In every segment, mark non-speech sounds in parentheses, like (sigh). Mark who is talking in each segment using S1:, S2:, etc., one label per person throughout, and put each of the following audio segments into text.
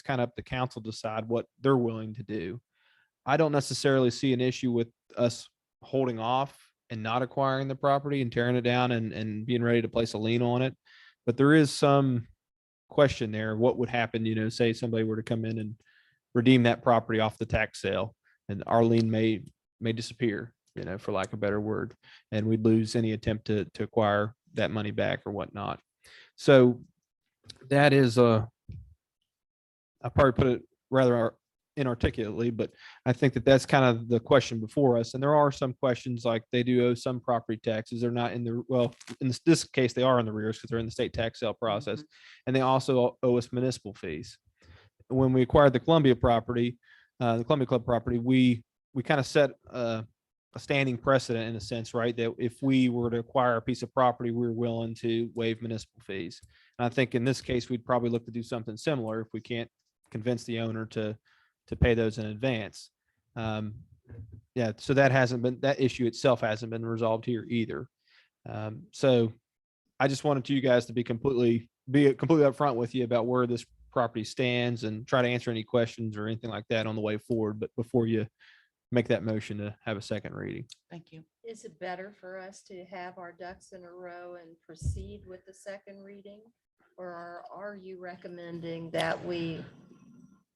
S1: it's kind of up to council to decide what they're willing to do. I don't necessarily see an issue with us holding off and not acquiring the property and tearing it down and, and being ready to place a lien on it. But there is some question there. What would happen, you know, say somebody were to come in and redeem that property off the tax sale and our lien may, may disappear, you know, for lack of a better word. And we'd lose any attempt to, to acquire that money back or whatnot. So that is a, I probably put it rather ar- inarticulately, but I think that that's kind of the question before us. And there are some questions like they do owe some property taxes. They're not in the, well, in this, this case, they are in the rears because they're in the state tax sale process. And they also owe us municipal fees. When we acquired the Columbia property, uh, the Columbia Club property, we, we kind of set a, a standing precedent in a sense, right? That if we were to acquire a piece of property, we're willing to waive municipal fees. And I think in this case, we'd probably look to do something similar if we can't convince the owner to, to pay those in advance. Um, yeah, so that hasn't been, that issue itself hasn't been resolved here either. Um, so I just wanted you guys to be completely, be completely upfront with you about where this property stands and try to answer any questions or anything like that on the way forward, but before you make that motion to have a second reading.
S2: Thank you.
S3: Is it better for us to have our ducks in a row and proceed with the second reading? Or are- are you recommending that we,
S1: I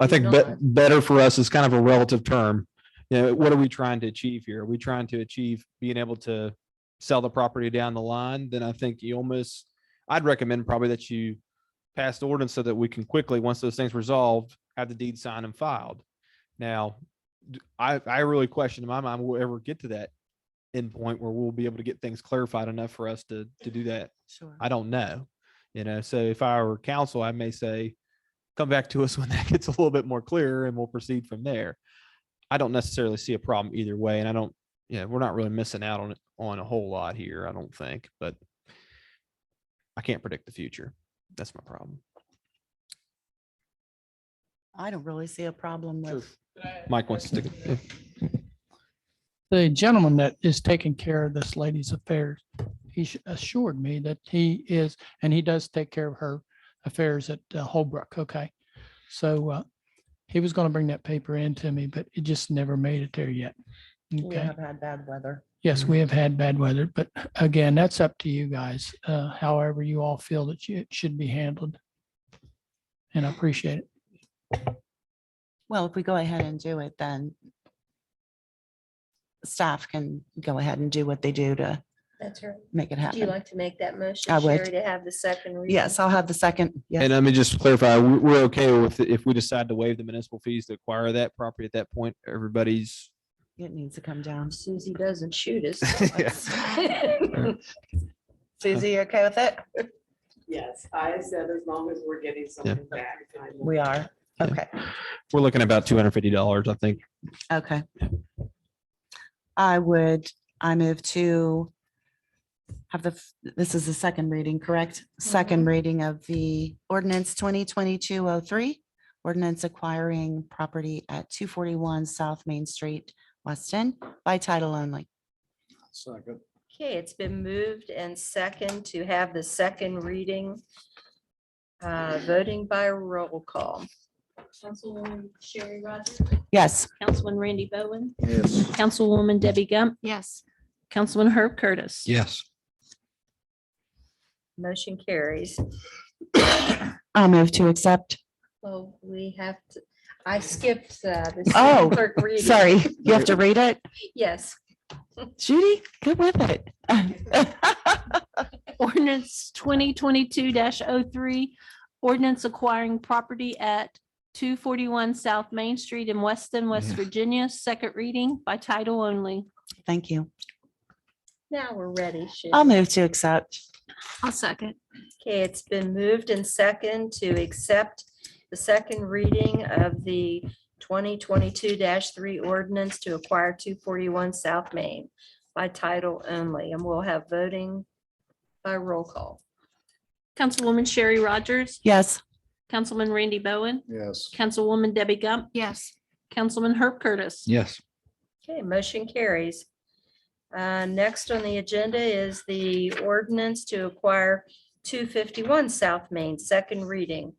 S3: You're
S1: think be-
S3: not.
S1: better for us is kind of a relative term. You know, what are we trying to achieve here? Are we trying to achieve being able to sell the property down the line? Then I think you almost, I'd recommend probably that you pass the ordinance so that we can quickly, once those things resolved, have the deed signed and filed. Now, d- I, I really question in my mind, we'll ever get to that endpoint where we'll be able to get things clarified enough for us to, to do that
S2: Sure.
S1: I don't know. You know, so if I were counsel, I may say, come back to us when (laughs) that gets a little bit more clear and we'll proceed from there. I don't necessarily see a problem either way. And I don't, you know, we're not really missing out on it on a whole lot here, I don't think, but I can't predict the future. That's my problem.
S2: I don't really see a problem with,
S1: Mike wants to, yeah,
S4: the gentleman that is taking care of this lady's affairs, he sh- assured me that he is, and he does take care of her affairs at uh, Holbrook, okay? So uh, he was going to bring that paper in to me, but it just never made it there yet.
S2: we
S4: Okay,
S2: have had bad weather.
S4: yes, we have had bad weather, but again, that's up to you guys, uh, however you all feel that you- it should be handled. And I appreciate it.
S2: Well, if we go ahead and do it, then staff can go ahead and do what they do to
S3: that's right.
S2: make it
S3: Do you
S2: happen.
S3: like to make that motion?
S2: I would.
S3: Sherry, To have the second reading?
S2: Yes, I'll have the second. Yes.
S1: and let me just clarify, we- we're okay with, it if we decide to waive the municipal fees to acquire that property at that point, everybody's
S2: It needs to come down.
S3: Susie doesn't
S2: (laughs)
S3: shoot us.
S1: Yeah.
S2: Susie, you okay with it?
S5: Yes, I said as long as we're getting something back. I'm-
S2: We are.
S1: Yeah.
S2: Okay,
S1: we're looking at about two hundred fifty dollars, I think.
S2: okay. I would, I move to have the, f- this is the second reading, correct? Second reading of the ordinance twenty twenty-two oh three, ordinance acquiring property at two forty-one South Main Street, West End, by title only.
S6: Second.
S3: (laughs) Okay, it's been moved and second to have the second reading. Uh, voting by roll call.
S7: Councilwoman Sherry Rogers,
S2: Yes.
S7: Councilman Randy Bowen,
S6: Yes.
S7: Councilwoman Debbie Gump,
S2: Yes.
S7: Councilman Herb Curtis.
S1: Yes.
S3: Motion carries.
S2: I'll move to accept.
S3: Well, we have to, I skipped uh, the. city
S2: Oh,
S3: clerk reading.
S2: Sorry, you have to read it?
S3: Yes,
S2: Judy, good with it.
S7: Ordinance twenty twenty-two 3 ordinance acquiring property at two forty-one South Main Street in Weston, West
S1: Yeah.
S7: Virginia, second reading by title only.
S2: Thank you.
S3: now we're ready. Sherry.
S2: I'll move to accept.
S7: I'll second.
S3: Okay, it's been moved and second to accept the second reading of the twenty twenty-two three ordinance to acquire two forty-one South Main by title only, and we'll have voting by roll call.
S7: Councilwoman Sherry Rogers,
S2: Yes.
S7: Councilman Randy Bowen,
S6: Yes.
S7: Councilwoman Debbie Gump. Yes. Councilman Herb Curtis.
S1: Yes.
S3: Okay, motion carries. Uh, Next on the agenda is the ordinance to acquire two fifty-one South Main, second reading.